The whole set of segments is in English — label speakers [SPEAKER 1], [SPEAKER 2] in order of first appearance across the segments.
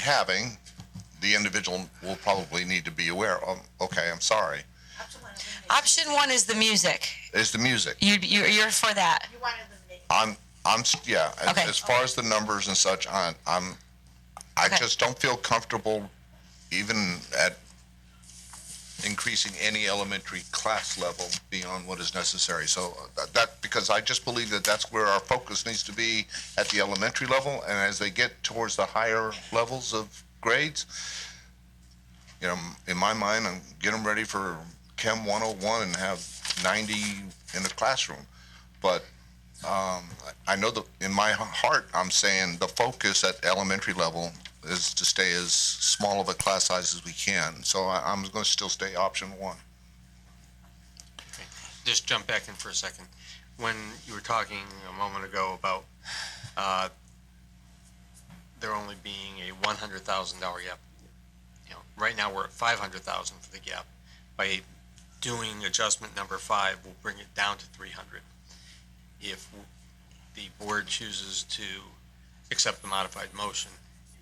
[SPEAKER 1] having, the individual will probably need to be aware, oh, okay, I'm sorry,
[SPEAKER 2] Option one is the music.
[SPEAKER 1] is the music.
[SPEAKER 2] You, you, you're for that.
[SPEAKER 3] You want to eliminate.
[SPEAKER 1] I'm, I'm, s- yeah, as,
[SPEAKER 2] Okay.
[SPEAKER 1] as far as the numbers and such, I'm, I'm, I
[SPEAKER 2] Okay.
[SPEAKER 1] just don't feel comfortable even at increasing any elementary class level beyond what is necessary. So uh, that- that, because I just believe that that's where our focus needs to be at the elementary level, and as they get towards the higher levels of grades, you know, in my mind, I'm get them ready for Chem 101 and have 90 in the classroom. But I know that in my heart, I'm saying the focus at elementary level is to stay as small of a class size as we can. So I, I'm going to still stay option one.
[SPEAKER 4] just jump back in for a second. When you were talking a moment ago about uh, there only being a one hundred thousand dollar gap, you know, right now we're at five hundred thousand for the gap. By doing adjustment number five, we'll bring it down to three hundred. If the board chooses to accept the modified motion,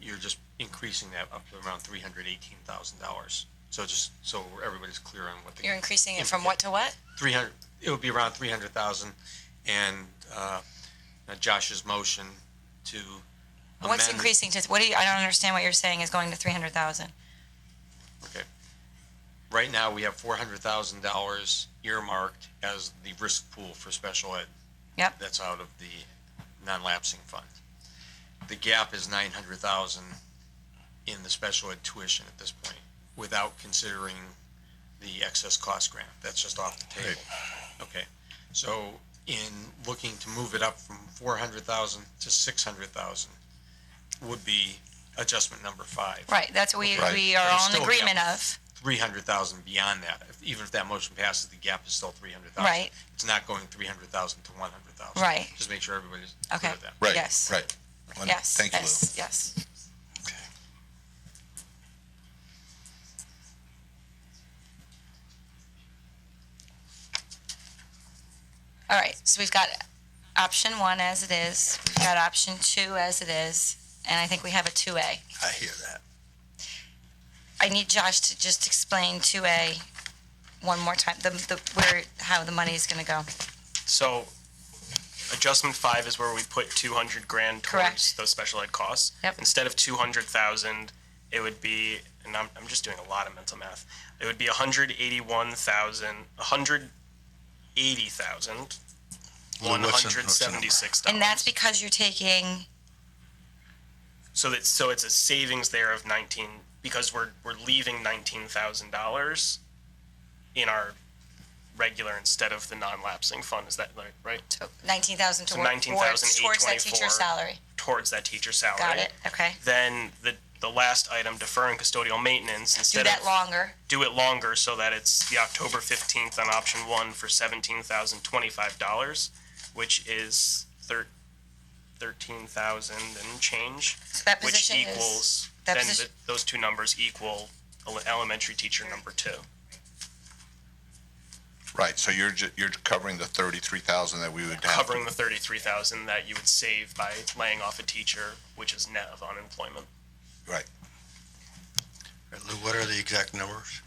[SPEAKER 4] you're just increasing that up to around three hundred eighteen thousand dollars. So just so everybody's clear on what the
[SPEAKER 2] You're increasing it from what to what?
[SPEAKER 4] 300, it would be around 300,000, and uh, now Josh's motion to amend.
[SPEAKER 2] What's increasing to, what do you, I don't understand what you're saying is going to three hundred thousand.
[SPEAKER 4] Okay. Right now, we have $400,000 earmarked as the risk pool for special ed.
[SPEAKER 2] Yep.
[SPEAKER 4] That's out of the non-lapsing fund. The gap is 900,000 in the special ed tuition at this point, without considering the excess cost grant. That's just off the table. Okay. So in looking to move it up from 400,000 to 600,000 would be adjustment number five.
[SPEAKER 2] Right, that's what we,
[SPEAKER 1] Right.
[SPEAKER 2] we are
[SPEAKER 4] But it's
[SPEAKER 2] all in
[SPEAKER 4] still a
[SPEAKER 2] agreement
[SPEAKER 4] gap.
[SPEAKER 2] of.
[SPEAKER 4] three hundred thousand beyond that. If- Even if that motion passes, the gap is still three hundred thousand.
[SPEAKER 2] Right.
[SPEAKER 4] It's not going three hundred thousand to one hundred thousand.
[SPEAKER 2] Right.
[SPEAKER 4] Just make sure everybody's
[SPEAKER 2] Okay.
[SPEAKER 4] clear with that.
[SPEAKER 1] Right.
[SPEAKER 2] Yes.
[SPEAKER 1] Right. Well,
[SPEAKER 2] Yes.
[SPEAKER 1] Thank you, Lou.
[SPEAKER 2] yes, Yes. All right, so we've got option one as it is, we've got option two as it is, and I think we have a two A.
[SPEAKER 5] I hear that.
[SPEAKER 2] I need Josh to just explain two A one more time, the, the, where, how the money is gonna go.
[SPEAKER 6] So adjustment five is where we put two hundred grand towards
[SPEAKER 2] Correct.
[SPEAKER 6] those special ed costs.
[SPEAKER 2] Yep.
[SPEAKER 6] Instead of two hundred thousand, it would be, and I'm, I'm just doing a lot of mental math. It would be a hundred eighty-one thousand, a hundred eighty thousand,
[SPEAKER 5] Lou,
[SPEAKER 6] one
[SPEAKER 5] what's the- what's the
[SPEAKER 6] hundred seventy-six dollars.
[SPEAKER 2] And that's because you're taking,
[SPEAKER 6] So that's so it's a savings there of nineteen because we're we're leaving nineteen thousand dollars in our regular instead of the non-lapsing fund. Is that right? Right.
[SPEAKER 2] nineteen thousand
[SPEAKER 6] So
[SPEAKER 2] towards, towards that
[SPEAKER 6] 19,824.
[SPEAKER 2] teacher's salary.
[SPEAKER 6] Towards that teacher salary.
[SPEAKER 2] Got it, okay.
[SPEAKER 6] Then the the last item, deferring custodial maintenance,
[SPEAKER 2] Do
[SPEAKER 6] instead
[SPEAKER 2] that
[SPEAKER 6] of
[SPEAKER 2] longer.
[SPEAKER 6] do it longer so that it's the October fifteenth on option one for seventeen thousand twenty-five dollars, which is thir- thirteen thousand and change,
[SPEAKER 2] So that
[SPEAKER 6] which
[SPEAKER 2] position is,
[SPEAKER 6] equals
[SPEAKER 2] that
[SPEAKER 6] then
[SPEAKER 2] position-
[SPEAKER 6] th- those two numbers equal ele- elementary teacher number two.
[SPEAKER 1] Right. So you're ju- you're covering the thirty-three thousand that we would have.
[SPEAKER 6] covering the thirty-three thousand that you would save by laying off a teacher, which is E net of unemployment.
[SPEAKER 1] Right.
[SPEAKER 5] All right, Lou, what are the exact numbers?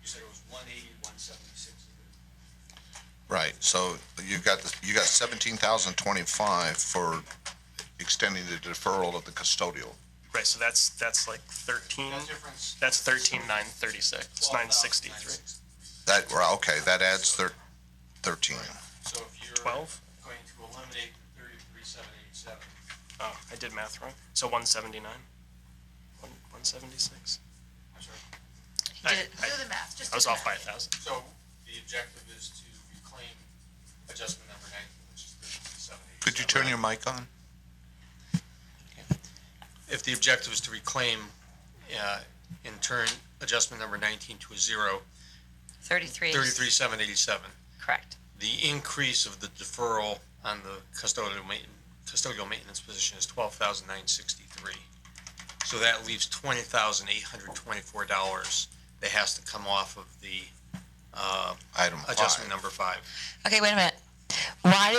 [SPEAKER 4] You said it was one eighty, one seventy-six.
[SPEAKER 1] Right. So you've got the, you got seventeen thousand twenty-five for extending the deferral of the custodial.
[SPEAKER 6] Right, so that's, that's like thirteen,
[SPEAKER 4] difference.
[SPEAKER 6] that's thirteen nine thirty-six, nine sixty-three,
[SPEAKER 1] That well, okay. That adds thir- thirteen.
[SPEAKER 4] So if you're
[SPEAKER 6] twelve?
[SPEAKER 4] going to eliminate the thirty-three, seven, eight, seven.
[SPEAKER 6] Oh, I did math wrong. So one seventy-nine? One, one seventy-six?
[SPEAKER 2] he did it-
[SPEAKER 3] Do the math, just.
[SPEAKER 6] I was
[SPEAKER 3] do the
[SPEAKER 6] off by a
[SPEAKER 3] math.
[SPEAKER 6] thousand.
[SPEAKER 4] So the objective is to reclaim adjustment number nineteen, which is thirty-three, seven, eight.
[SPEAKER 1] Could you turn your mic on?
[SPEAKER 4] if the objective is to reclaim, uh, in turn, adjustment number nineteen to a zero,
[SPEAKER 2] thirty-three.
[SPEAKER 4] thirty-three, seven eighty-seven,
[SPEAKER 2] Correct.
[SPEAKER 4] the increase of the deferral on the custodial main, custodial maintenance position is twelve thousand nine sixty-three. So that leaves twenty thousand eight hundred twenty-four dollars that has to come off of the, uh,
[SPEAKER 1] Item five.
[SPEAKER 4] adjustment number five.
[SPEAKER 2] Okay, wait a minute.